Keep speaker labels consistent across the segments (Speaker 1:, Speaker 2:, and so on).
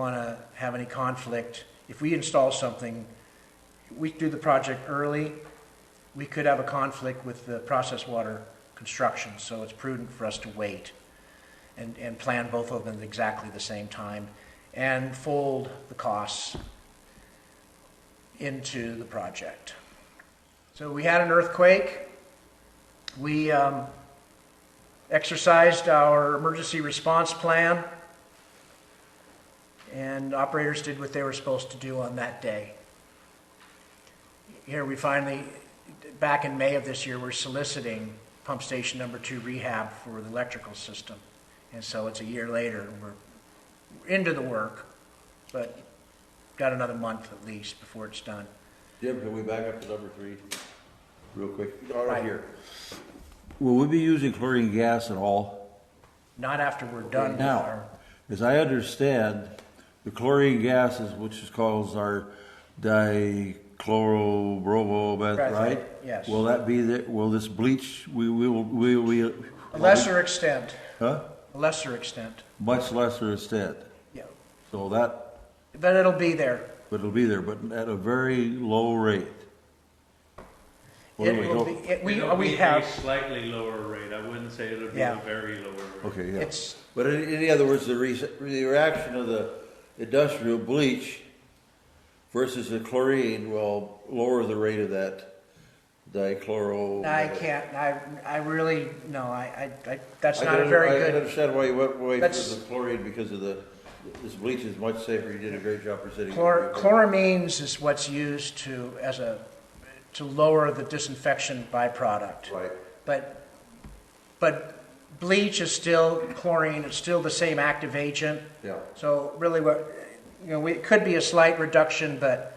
Speaker 1: want to have any conflict. If we install something, we do the project early, we could have a conflict with the process water construction, so it's prudent for us to wait and, and plan both of them at exactly the same time and fold the costs into the project. So we had an earthquake. We um, exercised our emergency response plan and operators did what they were supposed to do on that day. Here, we finally, back in May of this year, we're soliciting pump station number two rehab for the electrical system. And so it's a year later, and we're into the work, but got another month at least before it's done.
Speaker 2: Jim, can we back up to number three real quick?
Speaker 1: Right.
Speaker 2: Right here. Will we be using chlorine gas at all?
Speaker 1: Not after we're done with
Speaker 2: Now,
Speaker 1: our,
Speaker 2: as I understand, the chlorine gas is, which is called our dichlorobromomethates,
Speaker 1: Right,
Speaker 2: right?
Speaker 1: yes.
Speaker 2: Will that be the, will this bleach, we, we will, we, we.
Speaker 1: a lesser extent,
Speaker 2: Huh?
Speaker 1: a lesser extent,
Speaker 2: Much lesser extent.
Speaker 1: yeah.
Speaker 2: So that,
Speaker 1: But it'll be there.
Speaker 2: but it'll be there, but at a very low rate. What do
Speaker 1: It
Speaker 2: we
Speaker 1: will
Speaker 2: go-
Speaker 1: be- it- We,
Speaker 3: It'll
Speaker 1: we
Speaker 3: be
Speaker 1: have,
Speaker 3: a slightly lower rate, I wouldn't say it'll be
Speaker 1: Yeah.
Speaker 3: a very lower rate.
Speaker 2: Okay, yeah.
Speaker 1: it's,
Speaker 2: But in, in other words, the, re- the reaction of the industrial bleach versus the chlorine will lower the rate of that dichloro.
Speaker 1: I can't, I, I really, no, I, I, I- that's
Speaker 2: I
Speaker 1: not a
Speaker 2: can-
Speaker 1: very
Speaker 2: I can
Speaker 1: good,
Speaker 2: understand why you went away
Speaker 1: That's-
Speaker 2: from the chlorine because of the, this bleach is much safer. You did a great job presenting.
Speaker 1: chlor, chloramines is what's used to, as a, to lower the disinfection byproduct.
Speaker 2: Right.
Speaker 1: But, but bleach is still chlorine, it's still the same active agent.
Speaker 2: Yeah.
Speaker 1: So really what, you know, we- it could be a slight reduction, but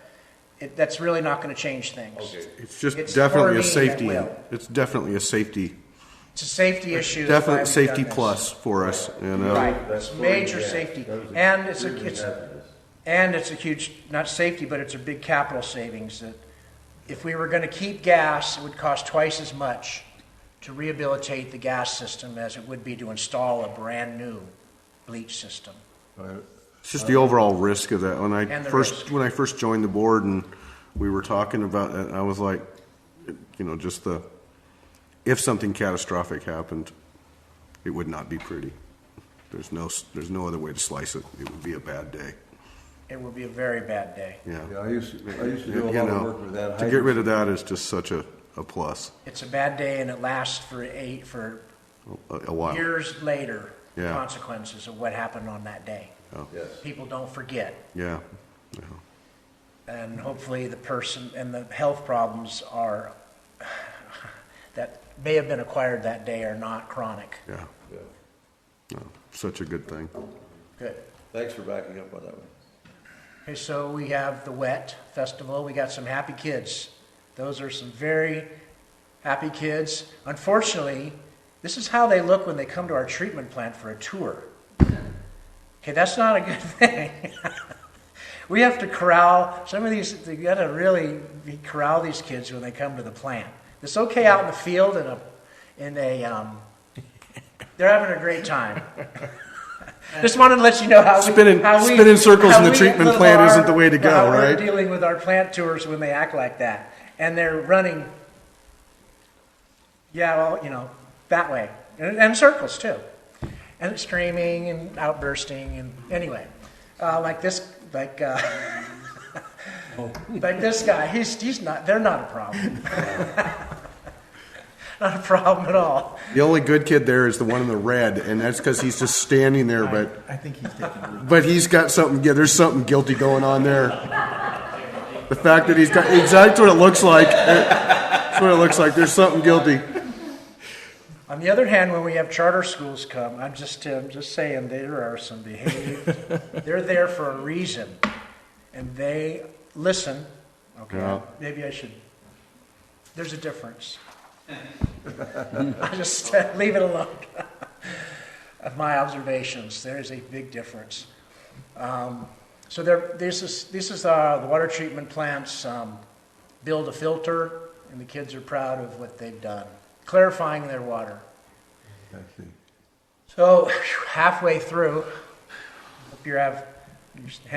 Speaker 1: it, that's really not gonna change things.
Speaker 2: Okay.
Speaker 4: It's just
Speaker 1: It's
Speaker 4: definitely
Speaker 1: for me,
Speaker 4: a
Speaker 1: that
Speaker 4: safety,
Speaker 1: will.
Speaker 4: it's definitely a safety,
Speaker 1: It's a safety issue. that's why
Speaker 4: definite
Speaker 1: we've
Speaker 4: safety
Speaker 1: done this.
Speaker 4: plus for us, you know?
Speaker 1: Right,
Speaker 2: That's
Speaker 1: it's
Speaker 2: chlorine
Speaker 1: major
Speaker 2: gas.
Speaker 1: safety,
Speaker 2: That was a-
Speaker 1: and it's a,
Speaker 2: really
Speaker 1: it's,
Speaker 2: hazardous.
Speaker 1: And it's a huge, not safety, but it's a big capital savings that if we were going to keep gas, it would cost twice as much to rehabilitate the gas system as it would be to install a brand-new bleach system.
Speaker 4: It's just the overall risk of that. When I
Speaker 1: And the
Speaker 4: first,
Speaker 1: risk.
Speaker 4: when I first joined the board and we were talking about it, I was like, you know, just the, if something catastrophic happened, it would not be pretty. There's no, s- there's no other way to slice it. It would be a bad day,
Speaker 1: It would be a very bad day.
Speaker 4: yeah.
Speaker 2: Yeah, I used, to- I used to do a
Speaker 4: You
Speaker 2: lot of
Speaker 4: know,
Speaker 2: work with that.
Speaker 4: To get rid of that is just such a, a plus,
Speaker 1: It's a bad day and it lasts for eight, for
Speaker 4: a a while.
Speaker 1: years later, the
Speaker 4: Yeah.
Speaker 1: consequences of what happened on that day.
Speaker 2: Yes.
Speaker 1: People don't forget.
Speaker 4: Yeah, yeah.
Speaker 1: and hopefully the person and the health problems are that may have been acquired that day are not chronic.
Speaker 4: yeah.
Speaker 2: Yeah.
Speaker 4: No, Such a good thing.
Speaker 1: Good.
Speaker 2: Thanks for backing up on that one.
Speaker 1: Okay, so we have the Wet Festival. We got some happy kids. Those are some very happy kids. Unfortunately, this is how they look when they come to our treatment plant for a tour. Okay, that's not a good thing. we have to corral some of these. You got to really corral these kids when they come to the plant. It's okay out in the field in a in a. Um, they're having a great time. Just wanted to let you know how
Speaker 4: Spinning-
Speaker 1: we, how we
Speaker 4: spinning circles
Speaker 1: how
Speaker 4: in the
Speaker 1: we
Speaker 4: treatment
Speaker 1: live
Speaker 4: plant
Speaker 1: our-
Speaker 4: isn't the way to go,
Speaker 1: how we're
Speaker 4: right?
Speaker 1: Dealing with our plant tours when they act like that, and they're running. Yeah, well, you know, that way, and, and circles too, and screaming and outbursting and anyway, uh, like this, like. Uh, Like this guy, he's, he's not, they're not a problem. Not a problem at all.
Speaker 4: The only good kid there is the one in the red, and that's because he's just standing there. But I think he's taking. But he's got something. Yeah, there's something guilty going on there. The fact that he's got exactly what it looks like. That's what it looks like. There's something guilty.
Speaker 1: On the other hand, when we have charter schools come, I'm just, uh, I'm just saying, there are some behaviors. They're there for a reason, and they listen. Okay,
Speaker 4: Yeah.
Speaker 1: maybe I should, there's a difference. I just leave it alone. Of my observations, there is a big difference. Um, So there, this is, this is uh, the water treatment plants, um, build a filter, and the kids are proud of what they've done, clarifying their water.
Speaker 2: I see.
Speaker 1: So halfway through, hope you have Just